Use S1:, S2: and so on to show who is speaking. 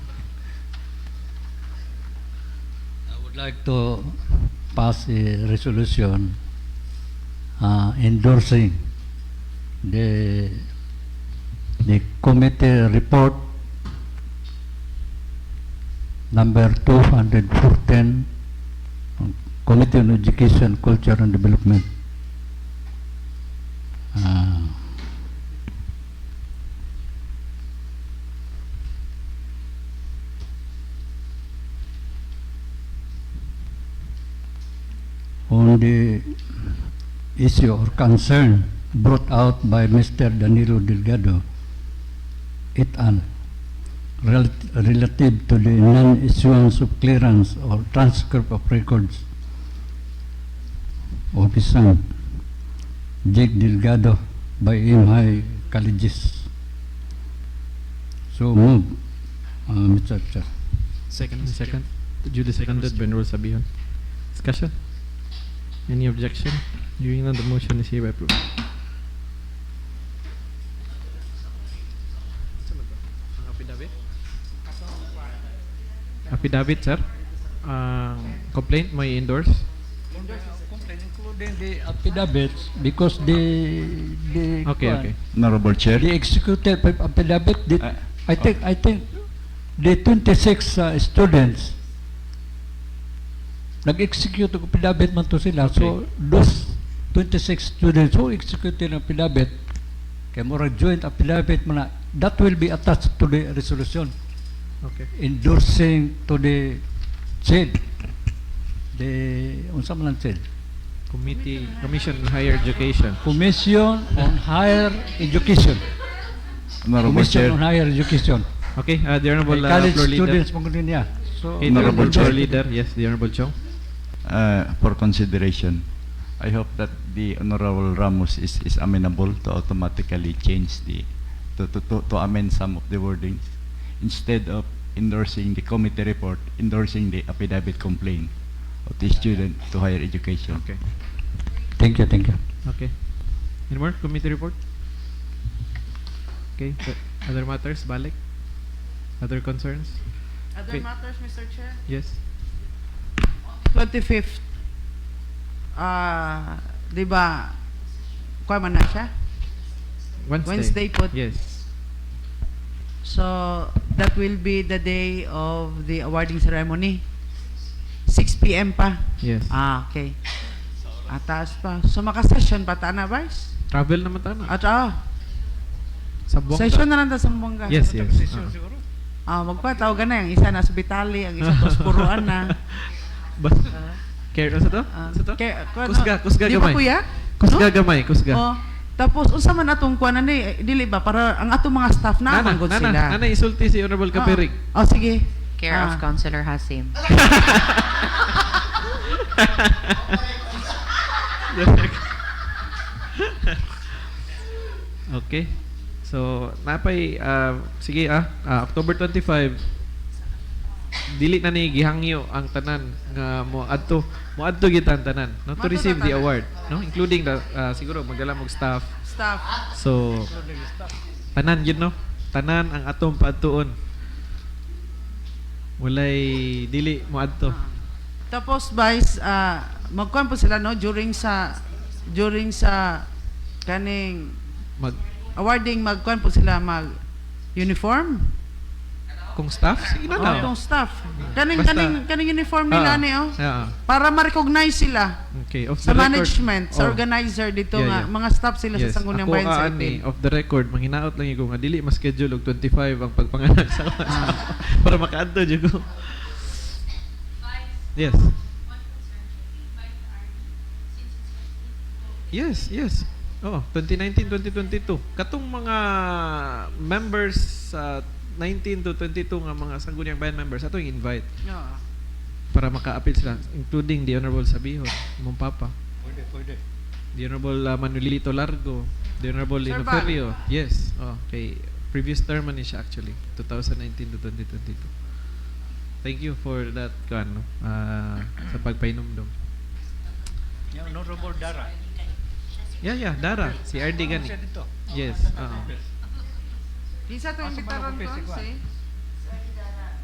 S1: would like to pass a resolution uh, endorsing the, the committee report number 214, on Committee on Education, Culture and Development. Uh, on the issue or concern brought out by Mr. Danilo Delgado et al. rel- relative to the non-issuance of clearance or transcript of records of his son, Jake Delgado, by MI Colleges. So move, uh, Mr. Chair.
S2: Second. Mr.
S3: Second.
S2: Chair.
S3: Duly seconded by Enroll Sabihan. Discussion? Any objection? Hearing none, the motion is hereby approved. Affidavit, sir. Um, complaint, may endorse.
S1: Including the affidavits, because the, the.
S3: Okay, okay.
S4: Honorable Chair.
S1: The executed pa- affidavit, the-
S4: Ah,
S1: I think, I think, the 26 uh, students, nag-execute ng affidavit man to sila. So, those 26 students who executed ng affidavit, kay mura joint affidavit man na, that will be attached to the resolution
S3: Okay.
S1: endorsing to the CHED. The, unsa man ang CHED?
S3: Committee, Commission on Higher Education.
S1: Commission on Higher Education.
S4: Honorable
S1: Commission on
S4: Chair.
S1: Higher Education.
S3: Okay, uh, the Honorable
S1: Well,
S3: uh,
S1: college
S3: Floor Leader.
S1: students mga ganun niya. So,
S3: Okay, the Honorable
S4: Honorable
S3: Floor
S4: Chair.
S3: Leader. Yes, the Honorable Chong.
S4: uh, for consideration. I hope that the Honorable Ramos is, is amenable to automatically change the, to, to, to, to amend some of the wordings. Instead of endorsing the committee report, endorsing the affidavit complaint of the student to higher education.
S3: Okay.
S1: thank you, thank you.
S3: Okay. Any more committee report? Okay, so other matters, balik? Other concerns?
S5: Other
S3: Wait.
S5: matters, Mr. Chair?
S3: Yes?
S5: 25th, ah, di ba, kuha man na siya?
S3: Wednesday?
S5: Wednesday po.
S3: Yes.
S5: So, that will be the day of the awarding ceremony. 6 PM pa?
S3: Yes.
S5: Ah, okay. Ataas pa. So, maka-session pa ta na, Vice?
S3: Travel naman tayo na.
S5: At, ah,
S3: Sa buong
S5: session na lang ta sa Buanga.
S3: Yes, yes. Ah.
S5: Ah, magpataw ka na. Ang isa na sa Bitali, ang isa sa Puruan na.
S3: Bas, care, ano sa to?
S5: Ah,
S3: Sa to?
S5: kay- kuha na.
S3: Kusga, kusga
S5: Di ba,
S3: gamay.
S5: kuya?
S3: Kusga
S5: No?
S3: gamay, kusga.
S5: Oh, tapos unsa man atong kuan ani dili ba para ang atong mga staff na
S3: Nana,
S5: manggod
S3: nana,
S5: sila.
S3: nana, isulti si Honorable Kapirig.
S5: Oh, sige.
S6: Care
S5: Ah,
S6: of Councillor Hasim.
S3: okay. So, napay, ah, sige ah, ah, October 25, dili na ni gihangyo ang tanan nga mo adto mo adto gitan tanan no to
S5: Moadto
S3: receive the
S5: tanan.
S3: award no including the ah, siguro magdala mog staff
S5: Staff.
S3: so tanan yun no tanan ang atong paadtuon walay dili mo adto
S5: Tapos vice ah magkuan po sila no during sa during sa kaning
S3: mag
S5: awarding magkuan po sila mag uniform.
S3: kung staff sige na
S5: Oh,
S3: lang
S5: Atong staff.
S3: Ano
S5: Kaning
S3: Basta.
S5: kaning kaning uniform
S3: Ah,
S5: nila ni oh.
S3: ah,
S5: Para ma-recognize sila
S3: okay of
S5: sa
S3: the record-
S5: management, sa
S3: Oh.
S5: organizer dito
S3: Yeah,
S5: nga
S3: yeah.
S5: mga staff sila
S3: yes.
S5: sa Sangguniang
S3: Ako, ah,
S5: Bayan Oh. sa
S3: ani, oh.
S5: Ipil.
S3: off the record, manghinaot lang yung nga dili mas schedule og 25 ang pagpanganak sa
S5: Ah.
S3: para makaadto jud ko. Yes. Yes, yes. Oh, 2019-2022. Katong mga members sa 19 to 22 nga mga Sangguniang Bayan members ato yung invite
S5: Oo.
S3: para maka-appeal sila including the honorable Sabihon, mong papa.
S1: Pwede, pwede.
S3: The Honorable uh, Manuelito Largo, the Honorable
S5: Sir
S3: Lino
S5: Val.
S3: Ferrio. Yes, oh, kay previous term man ni siya actually, 2019 to 2022. Thank you for that kan uh, sa pagpainomdom.
S1: Honorable Dara.
S3: Yeah, yeah, Dara,
S1: Ah,
S3: si RD gani. Yes, ah, oo.
S5: Isa to yung bitaran ko, si